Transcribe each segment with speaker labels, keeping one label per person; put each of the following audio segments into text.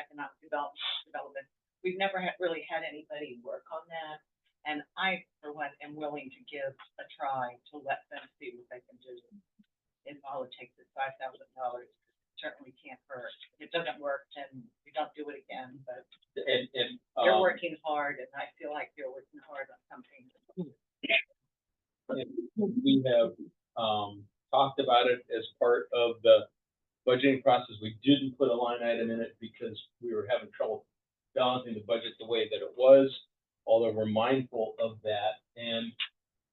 Speaker 1: economic development, development. We've never had, really had anybody work on that. And I, for one, am willing to give a try to let them see what they can do in politics at five thousand dollars. Certainly can't hurt. If it doesn't work, then we don't do it again, but
Speaker 2: And, and,
Speaker 1: they're
Speaker 2: um,
Speaker 1: working hard and I feel like they're working hard on something.
Speaker 2: and we have, um, talked about it as part of the budgeting process. We didn't put a line item in it because we were having trouble balancing the budget the way that it was, although we're mindful of that. And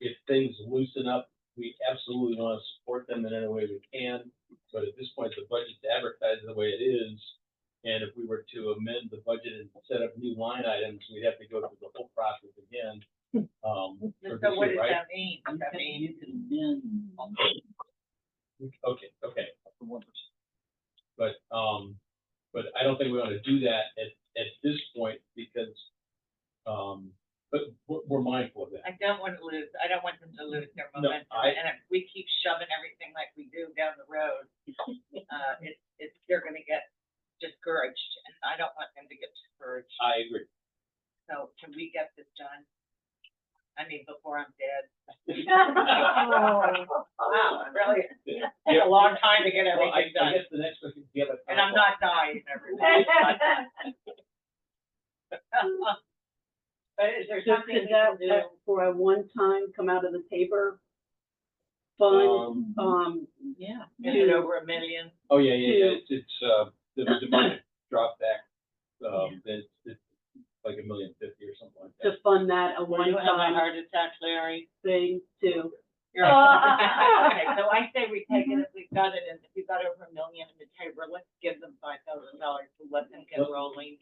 Speaker 2: if things loosen up, we absolutely want to support them in any way we can. But at this point, the budget's advertised the way it is. And if we were to amend the budget and set up new line items, we'd have to go through the whole process again. Um, for
Speaker 1: So
Speaker 2: this
Speaker 1: what
Speaker 2: year,
Speaker 1: does
Speaker 2: right?
Speaker 1: that mean? Does that mean?
Speaker 2: Okay, okay. But, um, but I don't think we ought to do that at, at this point because, um, but we're, we're mindful of that.
Speaker 1: I don't want to lose, I don't want them to lose their
Speaker 2: No,
Speaker 1: momentum,
Speaker 2: I-
Speaker 1: and if we keep shoving everything like we do down the road, uh, it's, it's, they're gonna get discouraged, and I don't want them to get discouraged,
Speaker 2: I agree.
Speaker 1: so can we get this done? I mean, before I'm dead. Wow, really, it's a long time to get
Speaker 2: Well, I,
Speaker 1: everything
Speaker 2: I
Speaker 1: done,
Speaker 2: guess the next question, do you have a?
Speaker 1: and I'm
Speaker 2: comment?
Speaker 1: not dying, everybody. But is there
Speaker 3: So
Speaker 1: something we
Speaker 3: could
Speaker 1: can
Speaker 3: that,
Speaker 1: do?
Speaker 3: that for a one-time come out of the paper
Speaker 2: Um,
Speaker 3: fund, um,
Speaker 1: Yeah. Is it
Speaker 3: to-
Speaker 1: over a million?
Speaker 2: Oh, yeah, yeah, yeah, it's, it's, uh, the, the money dropped back, um, then it's- it's like a million fifty or something like
Speaker 3: to
Speaker 2: that.
Speaker 3: fund that a one-time
Speaker 1: heart attack, Larry?
Speaker 3: thing too?
Speaker 1: You're right. Okay, so I say we take it, if we've got it, and if we've got over a million in the table, let's give them five thousand dollars to let them get rolling.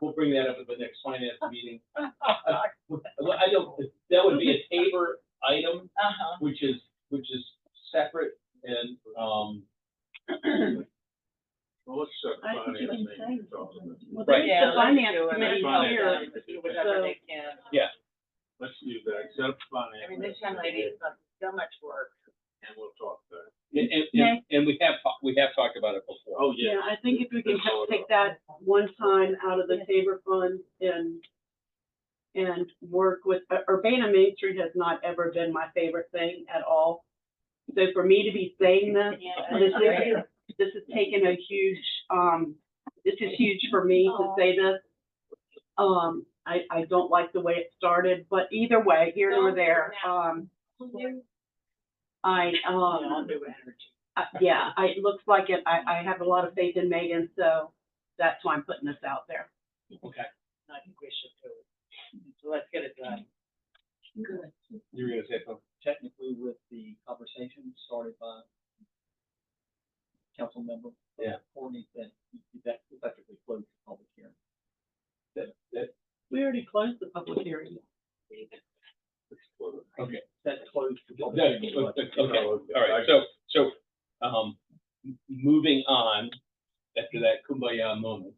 Speaker 2: We'll bring that up at the next finance meeting. Well, I don't, that would be a Tabor item,
Speaker 1: Uh-huh.
Speaker 2: which is, which is separate and, um,
Speaker 4: Well, let's set
Speaker 3: I think you
Speaker 4: finance
Speaker 3: can
Speaker 4: thing.
Speaker 3: say-
Speaker 4: talk about.
Speaker 3: Well,
Speaker 2: Right.
Speaker 3: there's
Speaker 1: Yeah, let's
Speaker 3: the finance
Speaker 1: do it.
Speaker 3: committee
Speaker 4: Finance.
Speaker 3: here,
Speaker 1: Let's do Whatever they can.
Speaker 2: yeah,
Speaker 4: Let's do that, set up
Speaker 1: I
Speaker 4: finance.
Speaker 1: mean, this young lady's done so much work.
Speaker 4: And we'll talk there.
Speaker 2: and, and- and, and we have, talked- we have talked about it before.
Speaker 4: Oh,
Speaker 3: yeah,
Speaker 4: yeah.
Speaker 3: I think if we can
Speaker 4: That's all
Speaker 3: take
Speaker 4: about-
Speaker 3: that one time out of the
Speaker 1: Yeah.
Speaker 3: Tabor fund and, and work with, Ur- Urbana Main Street has not ever been my favorite thing at all. So for me to be saying this, this is, this is taking a huge, um, this is huge for me to say this. Um, I, I don't like the way it started, but either way, here nor there, um, I, um,
Speaker 1: New energy.
Speaker 3: uh, yeah, I, it looks like it, I, I have a lot of faith in Megan, so that's why I'm putting this out there.
Speaker 2: Oh, Okay.
Speaker 1: I think we should do it. So let's get it done.
Speaker 2: You were gonna say something?
Speaker 5: technically with the conversation started by council member.
Speaker 2: Yeah.
Speaker 5: Courtney, that, that effectively closed the public hearing.
Speaker 2: That, that,
Speaker 3: We already closed the public hearing.
Speaker 2: okay.
Speaker 5: That closed the public
Speaker 2: That-
Speaker 5: hearing.
Speaker 2: okay, all right, so, so, um, m- moving on after that kumbaya moment.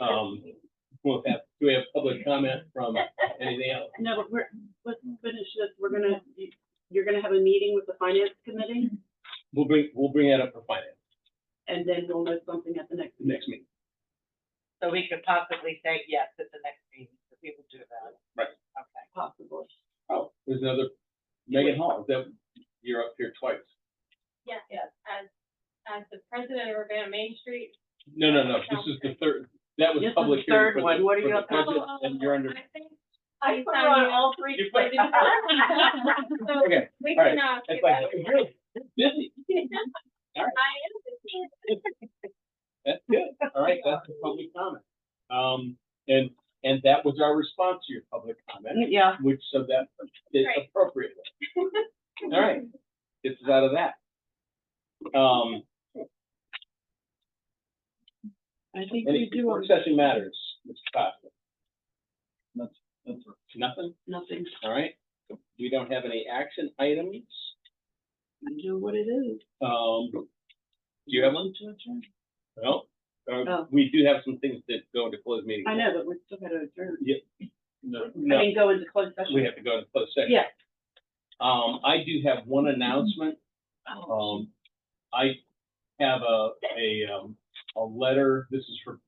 Speaker 2: Um, we'll have, do we have public comment from anything else?
Speaker 3: No, but we're, let's finish this, we're gonna, you- you're gonna have a meeting with the finance committee,
Speaker 2: We'll bring, we'll bring that up for finance
Speaker 3: and then we'll know something at the next meeting.
Speaker 2: next meeting.
Speaker 1: So we could possibly say yes at the next meeting, so we will do that.
Speaker 2: Right.
Speaker 1: Okay.
Speaker 3: possible.
Speaker 2: Oh, there's another, Megan Hall, that, you're up here twice.
Speaker 6: Yes, yes, as, as the president of Urbana Main Street.
Speaker 2: No, no, no, this is the third, that was
Speaker 3: This is
Speaker 2: public
Speaker 3: the
Speaker 2: hearing
Speaker 3: third
Speaker 2: for the,
Speaker 3: one. What are
Speaker 2: for
Speaker 3: you
Speaker 2: the
Speaker 3: up to?
Speaker 2: budget, and you're under,
Speaker 6: um, I think-
Speaker 3: I
Speaker 6: put her on
Speaker 3: all three.
Speaker 2: You put-
Speaker 6: So
Speaker 2: okay,
Speaker 6: we
Speaker 2: all right.
Speaker 6: cannot.
Speaker 2: it's
Speaker 6: give
Speaker 2: like,
Speaker 6: up.
Speaker 2: you're busy,
Speaker 6: I am the king.
Speaker 2: that's good, all right, that's the public comment. Um, and, and that was our response to your public comment,
Speaker 3: Yeah,
Speaker 2: which, so that is
Speaker 6: Right.
Speaker 2: appropriate. All right, gets us out of that. Um,
Speaker 3: I think we
Speaker 2: any
Speaker 3: do,
Speaker 2: work session matters, Mr. Costa,
Speaker 5: That's right.
Speaker 2: nothing,
Speaker 3: nothing,
Speaker 2: all right? We don't have any action items,
Speaker 3: I know what it is.
Speaker 2: um, do you have one? No, uh,
Speaker 3: Oh.
Speaker 2: we do have some things that go into closed meeting.
Speaker 3: I know, but we're still gonna adjourn.
Speaker 2: No,
Speaker 3: I
Speaker 2: no,
Speaker 3: mean, go into closed session.
Speaker 2: we have to go to closed session.
Speaker 3: Yeah.
Speaker 2: Um, I do have one announcement.
Speaker 3: Oh.
Speaker 2: Um, I have a, a, um, a letter, this is for